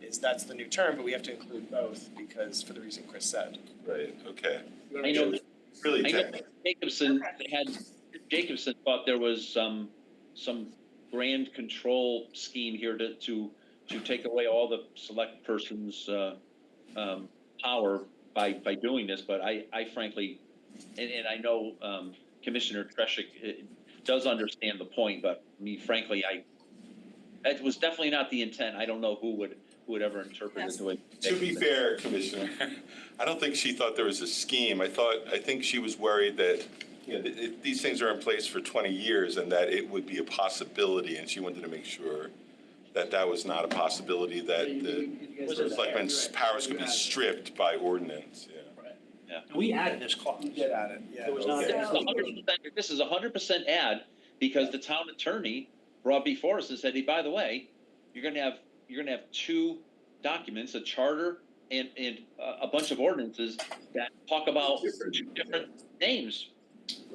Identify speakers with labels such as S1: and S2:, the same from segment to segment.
S1: is that's the new term, but we have to include both because for the reason Chris said.
S2: Right, okay.
S3: I know, that-
S2: It's Really
S3: I know
S2: technical.
S3: that Jacobson they had, Jacobson thought there was some, some grand control scheme here to, to, to take away all the select person's, uh, um, power by, by doing this, but I, I frankly, and, and I know, um, Commissioner Treshik eh, does understand the point, but me frankly, I, that was definitely not the intent. I don't know who would, who would ever interpret it the way.
S2: To be fair, Commissioner, I don't think she thought there was a scheme. I thought, I think she was worried that, you know, th- th- these things are in place for 20 years and that it would be a possibility, and she wanted to make sure that that was not a possibility, that the selectmen's powers could be stripped by ordinance, yeah.
S4: We added this clause.
S1: at it, yeah.
S4: It was not.
S2: Okay.
S3: This is a hundred percent- This is a hundred percent ad, because the town attorney brought before us and said, hey, by the way, you're gonna have, you're gonna have two documents, a charter and, and uh, a bunch of ordinances that talk about two different names.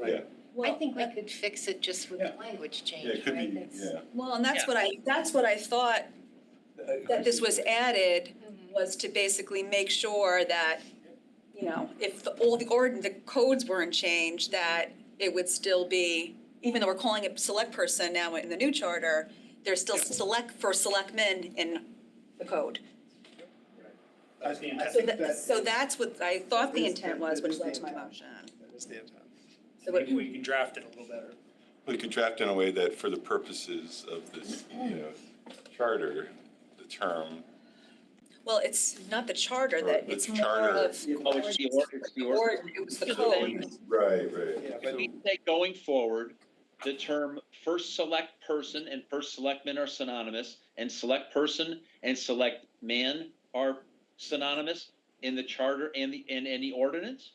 S5: I
S6: Well,
S5: think we could fix it just with the
S1: Yeah.
S5: language change,
S2: Yeah,
S5: right?
S2: it could be,
S5: That's-
S2: yeah.
S6: well, and that's
S3: Yeah.
S6: what I, that's what I thought, that this was added,
S5: Mhm.
S6: was to basically make sure that, you know, if the old, the ord, the codes weren't changed, that it would still be, even though we're calling it select person now in the new charter, there's still select for selectmen in the code.
S4: That's the
S1: I
S4: intent.
S6: So
S1: think
S6: that,
S1: that-
S6: so that's what I thought the
S1: That is-
S6: intent
S1: that
S6: was when
S1: is
S6: it
S1: the
S6: went to my
S1: intent.
S6: motion.
S1: That is the intent.
S6: So what-
S4: Maybe we can draft it a little better.
S2: We could draft in a way that for the purposes of this, you know, charter, the term,
S6: Well, it's not the charter
S2: Or
S6: that,
S2: the
S6: it's more
S2: charter.
S6: of.
S3: Oh, it's the or- it's the or-
S6: Or it was the
S3: So
S6: code.
S2: Right, right.
S1: Yeah,
S3: If we say going forward, the term first select person and first selectman are synonymous, and select person and select man are synonymous in the charter and the, and any ordinance?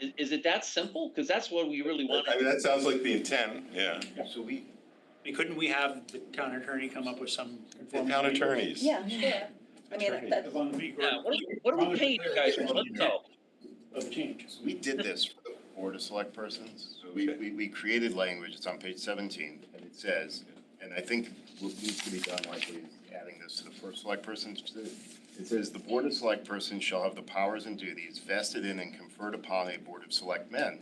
S3: Is, is it that simple? Because that's what we really want.
S2: I mean, that sounds like the intent, yeah.
S7: So we,
S4: I mean, couldn't we have the town attorney come up with some?
S2: The town attorneys.
S6: Yeah, sure. I mean,
S2: Attorney.
S6: that,
S3: Yeah, what are, we- what are we paying you guys for? Let's go.
S4: Of change.
S7: so we did this for the board of select persons. So we,
S2: Okay.
S7: we, we created language, it's on page seventeen, and it says, and I think what needs to be done likely is adding this to the first select persons. It says, the board of select persons shall have the powers and duties vested in and conferred upon a board of selectmen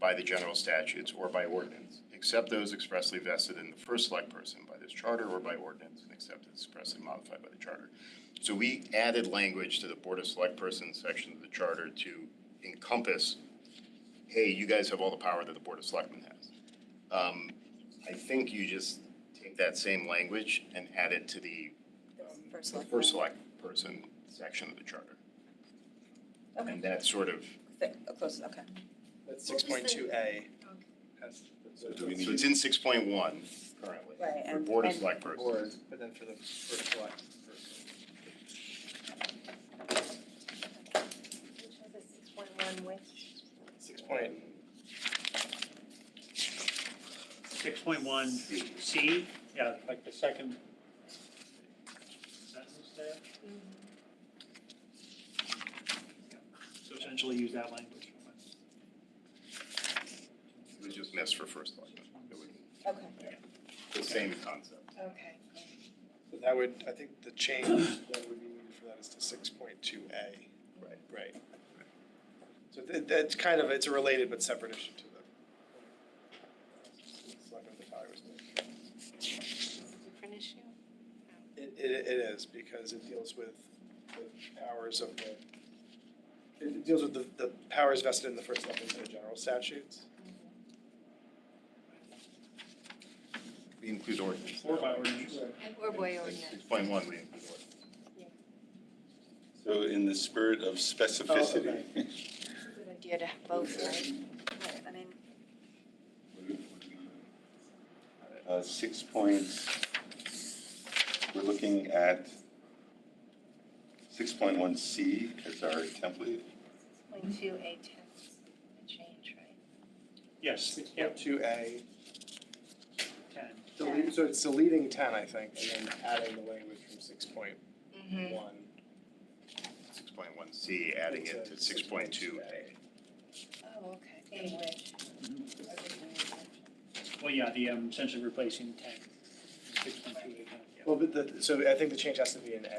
S7: by the general statutes or by ordinance, except those expressly vested in the first select person by this charter or by ordinance, and except as expressly modified by the charter. So we added language to the Board of Select Persons section of the charter to encompass, hey, you guys have all the power that the Board of Selectmen has. Um, I think you just take that same language and add it to the um,
S6: First
S7: the
S6: Select.
S7: First Select Person section of the charter.
S6: Okay.
S7: And that sort of,
S6: that- oh, close, okay.
S1: That's
S5: What
S1: six
S5: was the-
S1: point two A.
S2: So do we need,
S7: so it's in six point one currently.
S6: Right,
S7: For
S6: and-
S7: Board of
S6: and-
S7: Select Persons.
S1: Board, but then for the first select.
S5: Which was a six point one which
S1: Six point,
S4: Six point one C, yeah, like the second sentence there.
S5: Mm-hmm.
S4: So essentially use that language.
S7: It was just missed for First Selectmen. It would-
S6: Okay,
S7: The same concept.
S5: okay.
S1: so that would, I think the change that would be needed for that is to six point two A.
S7: Right.
S1: Right. So that, that's kind of, it's a related but separate issue to the. Selectmen the powers.
S5: Different issue?
S1: It, it, it is, because it deals with the powers of the, it deals with the, the powers vested in the first selectmen in the general statutes.
S7: We include ordinance.
S4: Or by ordinance.
S5: Or by
S7: Six
S5: ordinance.
S7: point one, we include ordinance.
S2: so in the spirit of specificity, what
S5: Good idea to have both, right? Right, I mean,
S2: do we- uh, six points, we're looking at six point one C as our template.
S5: point two A ten is a change, right?
S4: Yes, yeah,
S1: Two A,
S4: ten.
S1: delete, so it's deleting ten, I think, and then adding the language from six point
S5: Mm-hmm.
S1: one.
S7: Six point one C, adding it to six point two A.
S5: Oh, okay, anyway. I didn't know that.
S4: Well, yeah, the, um, essentially replacing ten. Six point two eight nine, yeah.
S1: Well, but the, so I think the change has to be in A.